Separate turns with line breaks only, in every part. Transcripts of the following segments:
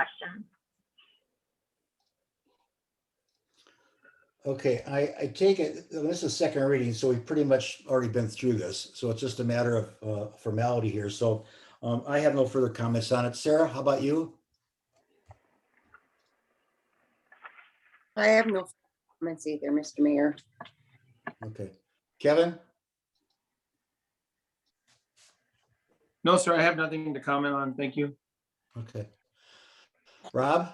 question.
Okay, I, I take it, this is second reading, so we've pretty much already been through this. So it's just a matter of uh, formality here. So um, I have no further comments on it. Sarah, how about you?
I have no comments either, Mr. Mayor.
Okay. Kevin?
No, sir, I have nothing to comment on. Thank you.
Okay. Rob?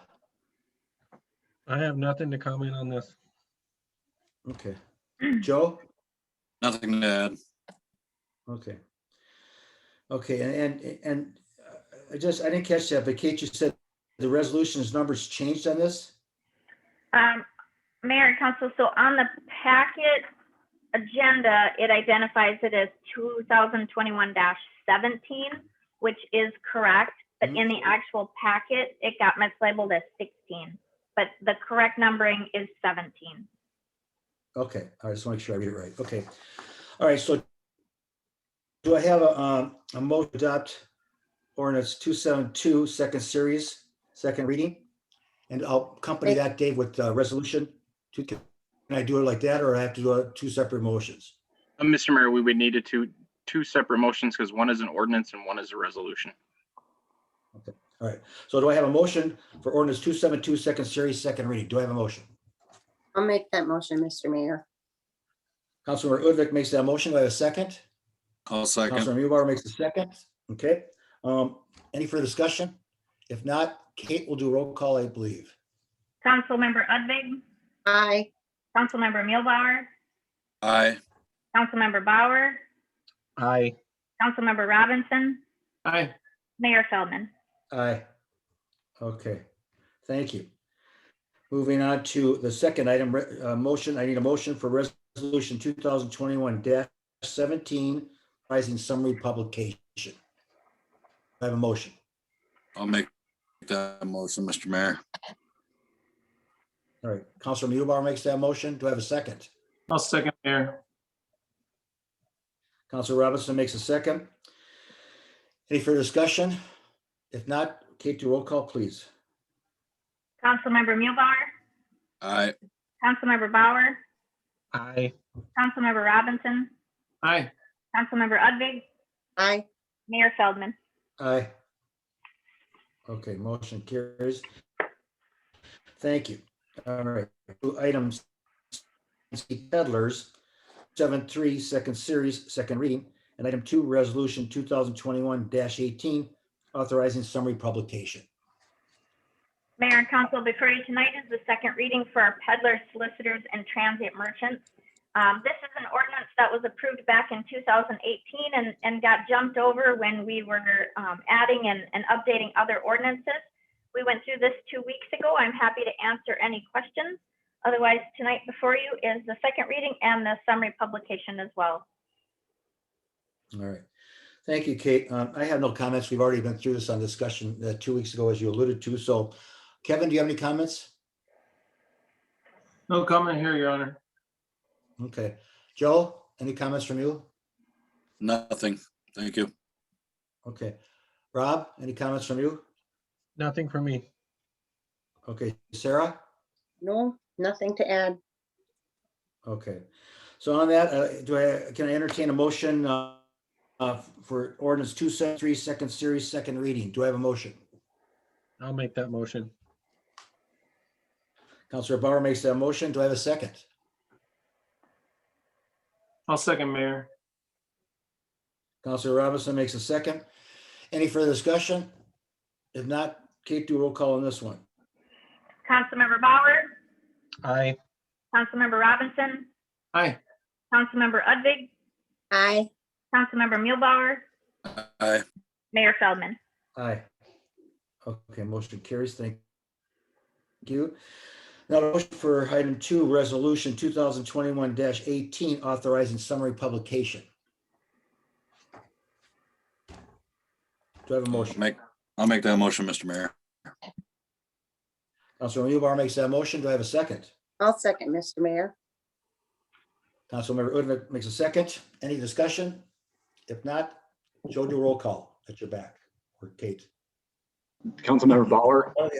I have nothing to comment on this.
Okay. Joe?
Nothing to add.
Okay. Okay, and, and, and uh, I just, I didn't catch that, but Kate, you said the resolution's numbers changed on this?
Um, Mayor and Council, so on the packet agenda, it identifies it as two thousand twenty-one seventeen, which is correct, but in the actual packet, it got mislabeled as sixteen. But the correct numbering is seventeen.
Okay, I just want to make sure I read it right. Okay. All right, so do I have a, um, a motion to adopt ordinance two seven two, second series, second reading? And I'll accompany
Wait.
that, Dave, with uh resolution. to- Can I do it like that or I have to do uh, two separate motions?
Uh, Mr. Mayor, we would need to two, two separate motions because one is an ordinance and one is a resolution.
So do I have a motion for ordinance two seven two, second series, second reading? Do I have a motion?
I'll make that motion, Mr. Mayor.
Councilmember Udvik makes that motion. Do I have a second?
I'll second.
Councilmember Mewbauer makes a second. Okay. Um, any further discussion? If not, Kate will do roll call, I believe.
Councilmember Udvig,
Aye.
Councilmember Mulebauer,
Aye.
Councilmember Bauer,
Aye.
Councilmember Robinson,
Aye.
Mayor Feldman.
Aye. Okay, thank you. Moving on to the second item, re- uh, motion, I need a motion for resolution two thousand twenty-one seventeen, pricing summary publication. I have a motion.
I'll make that motion, Mr. Mayor.
All right, Counselor Mewbauer makes that motion. Do I have a second?
I'll second, Mayor.
Counselor Robinson makes a second. Any further discussion? If not, Kate, do roll call, please.
Councilmember Mulebauer,
Aye.
Councilmember Bauer,
Aye.
Councilmember Robinson,
Aye.
Councilmember Udvig,
Aye.
Mayor Feldman.
Aye. Okay, motion carries. Thank you. All right, to item C, peddlers, seven, three, second series, second reading, and item two, resolution two thousand twenty-one eighteen, authorizing summary publication.
Mayor and council, before you tonight is the second reading for our peddlers, solicitors, and transient merchants. Um, this is an ordinance that was approved back in 2018 and, and got jumped over when we were, um, adding and, and updating other ordinances. We went through this two weeks ago. I'm happy to answer any questions. Otherwise, tonight before you is the second reading and the summary publication as well.
All right. Thank you, Kate. Um, I have no comments. We've already been through this on discussion uh, two weeks ago, as you alluded to. So Kevin, do you have any comments?
No comment here, Your Honor.
Okay. Joe, any comments from you?
Nothing. Thank you.
Okay. Rob, any comments from you?
Nothing for me.
Okay, Sarah?
No, nothing to add.
Okay. So on that, uh, do I, can I entertain a motion uh, uh, for ordinance two seven three, second series, second reading? Do I have a motion?
I'll make that motion.
Counselor Bauer makes that motion. Do I have a second?
I'll second, Mayor.
Counselor Robinson makes a second. Any further discussion? If not, Kate, do a roll call on this one.
Councilmember Bauer,
Aye.
Councilmember Robinson,
Aye.
Councilmember Udvig,
Aye.
Councilmember Mulebauer,
Aye.
Mayor Feldman.
Aye. Okay, motion carries. Thank you. Now, the motion for item two, resolution two thousand twenty-one eighteen, authorizing summary publication. Do I have a motion?
Make, I'll make that motion, Mr. Mayor.
Councilor Mewbauer makes that motion. Do I have a second?
I'll second, Mr. Mayor.
Councilmember Udvig makes a second. Any discussion? If not, Joe, do a roll call at your back, or Kate.
Councilmember Bauer?